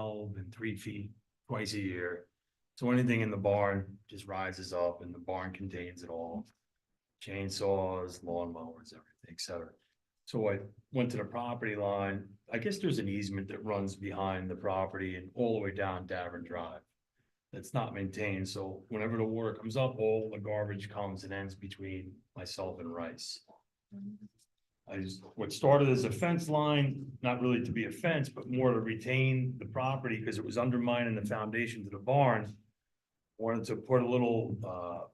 open three feet twice a year. So anything in the barn just rises up and the barn contains it all. Chainsaws, lawnmowers, everything, et cetera. So I went to the property line. I guess there's an easement that runs behind the property and all the way down Davern Drive. That's not maintained, so whenever the water comes up, all the garbage comes and ends between myself and Rice. I just, what started as a fence line, not really to be a fence, but more to retain the property because it was undermining the foundation to the barn. Wanted to put a little uh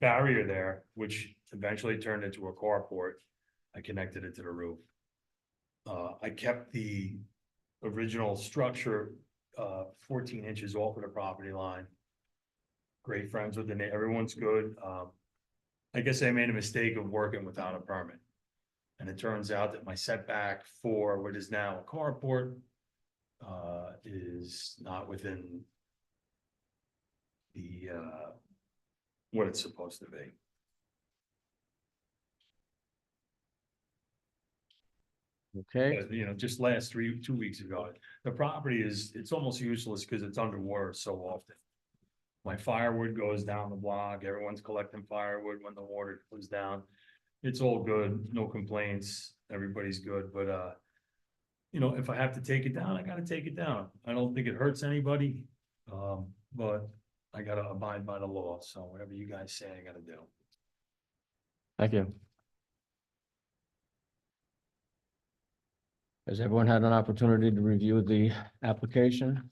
barrier there, which eventually turned into a carport. I connected it to the roof. Uh, I kept the original structure uh fourteen inches off of the property line. Great friends with the, neigh- everyone's good. Um, I guess I made a mistake of working without a permit. And it turns out that my setback for what is now a carport uh, is not within the, uh, what it's supposed to be. Okay, But, You know, just last three, two weeks ago, the property is, it's almost useless because it's underwater so often. My firewood goes down the block, everyone's collecting firewood when the water goes down. It's all good, no complaints, everybody's good, but, uh, you know, if I have to take it down, I gotta take it down. I don't think it hurts anybody, um, but I gotta abide by the law, so whatever you guys say, I gotta do. thank you. Has everyone had an opportunity to review the application?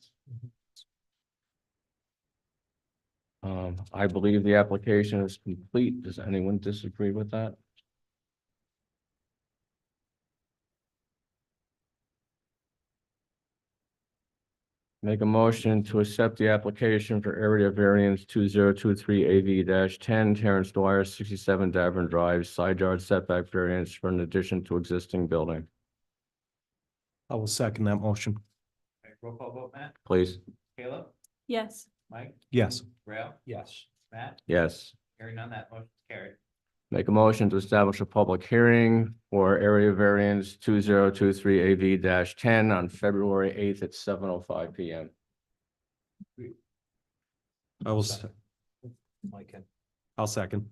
Um, I believe the application is complete. Does anyone disagree with that? Make a motion to accept the application for area variance two zero two three A V ten Terrence Dwyer, sixty-seven Davern Drive, side yard setback variance for an addition to existing building. I will second that motion. Alright, roll call vote, Matt, Please, Caleb, Yes, Mike, Yes, Rail. Yes. Matt, yes. hearing none, that motion's carried. Make a motion to establish a public hearing for area variance two zero two three A V ten on February eighth at seven oh five P M. I will, se- Mike in. I'll second.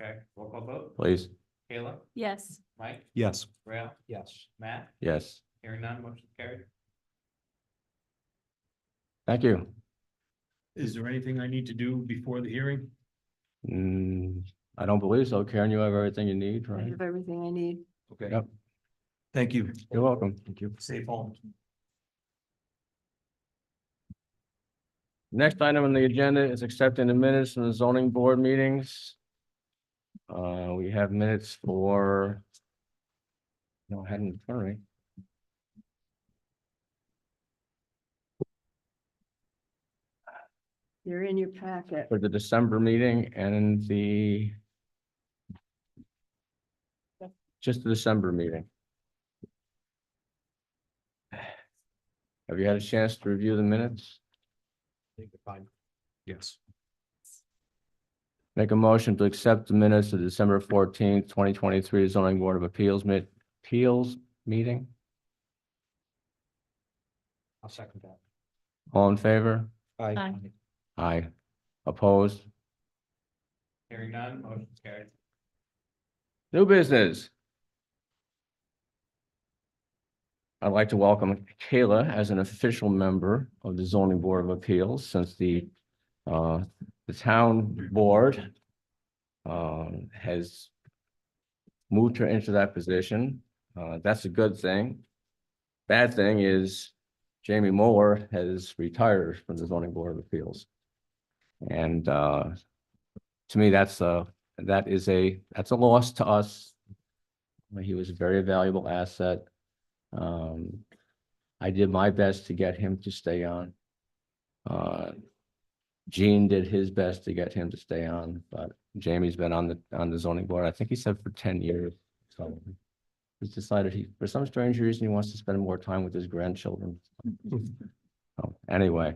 Okay, roll call vote, Please, Caleb, yes, Mike, Yes, Rail. Yes. Matt, yes. hearing none, motion's carried. Thank you. Is there anything I need to do before the hearing? Mm, I don't believe so. Karen, you have everything you need, I right? have everything I need. Okay. Yep. Thank you. You're welcome. Thank you. Safe home. Next item on the agenda is accepting the minutes from the zoning board meetings. Uh, we have minutes for. No, I hadn't, sorry. They're in your packet. For the December meeting and the. Just the December meeting. Have you had a chance to review the minutes? yes. Make a motion to accept the minutes of December fourteenth, twenty twenty-three zoning board of appeals mi- appeals meeting. I'll second that. All in favor? Aye. Aye. Opposed? Hearing none, motion's carried. New business. I'd like to welcome Kayla as an official member of the zoning board of appeals since the uh, the town board um, has moved her into that position. Uh, that's a good thing. Bad thing is Jamie Moore has retired from the zoning board of appeals. And uh, to me, that's a that is a, that's a loss to us. He was a very valuable asset. Um, I did my best to get him to stay on. Uh, Gene did his best to get him to stay on, but Jamie's been on the, on the zoning board, I think he said for ten years. So he's decided he, for some strange reason, he wants to spend more time with his grandchildren. So Anyway,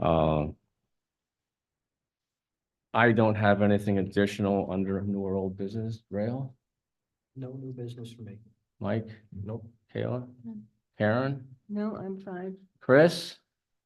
um, I don't have anything additional under new or old business, rail, No new business for me. Mike, Nope. Kayla, None. Karen, No, I'm fine. Chris?